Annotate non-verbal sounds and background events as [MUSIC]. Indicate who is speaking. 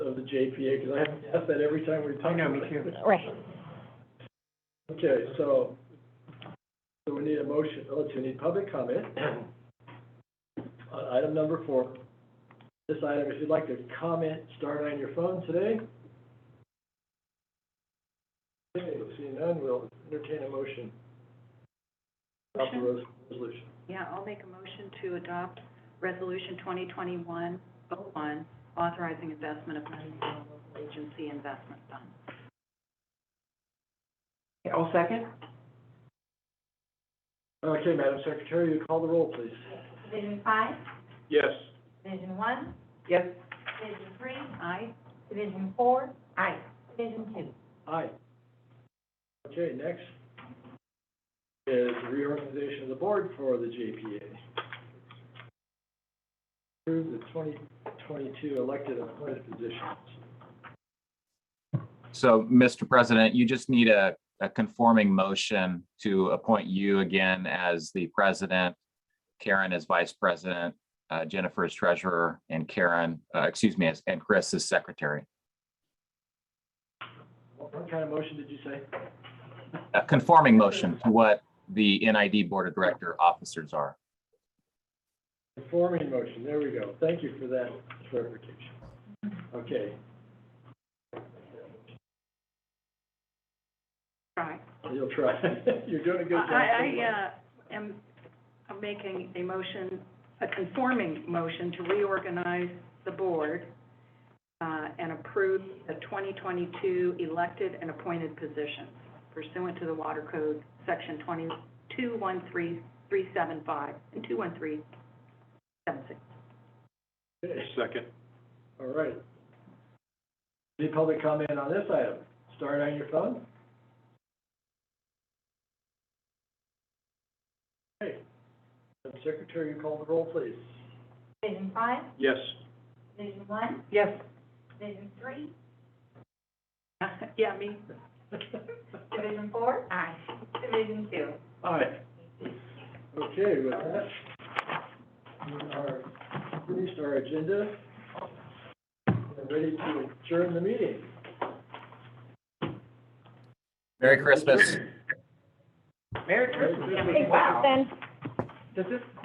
Speaker 1: JPA, because I have to ask that every time we're talking.
Speaker 2: I know, me
Speaker 1: about it.
Speaker 3: Right.
Speaker 1: Okay, so, so we need a motion, oh, so we need public comment [CLEARS THROAT] on item number four. This item, if you'd like to comment, start on your phone today. Okay, seeing none, we'll entertain a motion. Adopt the res- resolution.
Speaker 4: Yeah, I'll make a motion to adopt Resolution 2021-01, authorizing investment of money from local agency investment fund.
Speaker 2: I'll second.
Speaker 1: Okay, Madam Secretary, you call the roll, please.
Speaker 5: Division five,
Speaker 1: Yes.
Speaker 5: division one,
Speaker 2: Yes.
Speaker 5: division three,
Speaker 4: Aye.
Speaker 5: division four. Aye. Division two.
Speaker 1: Aye. Okay, next is reorganization of the board for the JPA. Approve the twenty twenty-two elected and appointed positions.
Speaker 6: So, Mr. President, you just need a, a conforming motion to appoint you again as the president, Karen as vice president, uh, Jennifer as treasurer, and Karen, uh, excuse me, as- and Chris as secretary.
Speaker 1: What what kind of motion did you say?
Speaker 6: A conforming motion to what the NID Board of Director officers are.
Speaker 1: Informing motion, there we go. Thank you for that clarification. Okay,
Speaker 4: Aye.
Speaker 1: you'll try. [LAUGHS] You're doing a good job.
Speaker 4: I, I, uh, am, I'm making a motion, a conforming motion to reorganize the board, uh, and approve the twenty twenty-two elected and appointed positions pursuant to the Water Code, section twenty-two one three three seven five and two one three seven six.
Speaker 1: Okay.
Speaker 2: Second.
Speaker 1: All right. Any public comment on this item? Start on your phone. Okay. Madam Secretary, you call the roll, please.
Speaker 5: Division five,
Speaker 2: Yes.
Speaker 5: division one,
Speaker 2: Yes.
Speaker 5: division three,
Speaker 4: [LAUGHS] Yeah, me,
Speaker 5: division four. Aye. Division two.
Speaker 1: Aye. Okay, with that, we are finished our agenda. We're ready to adjourn the meeting.
Speaker 6: Merry Christmas.
Speaker 2: Merry Christmas.
Speaker 1: Merry Christmas.
Speaker 3: Thanks, Kristen.
Speaker 2: Does this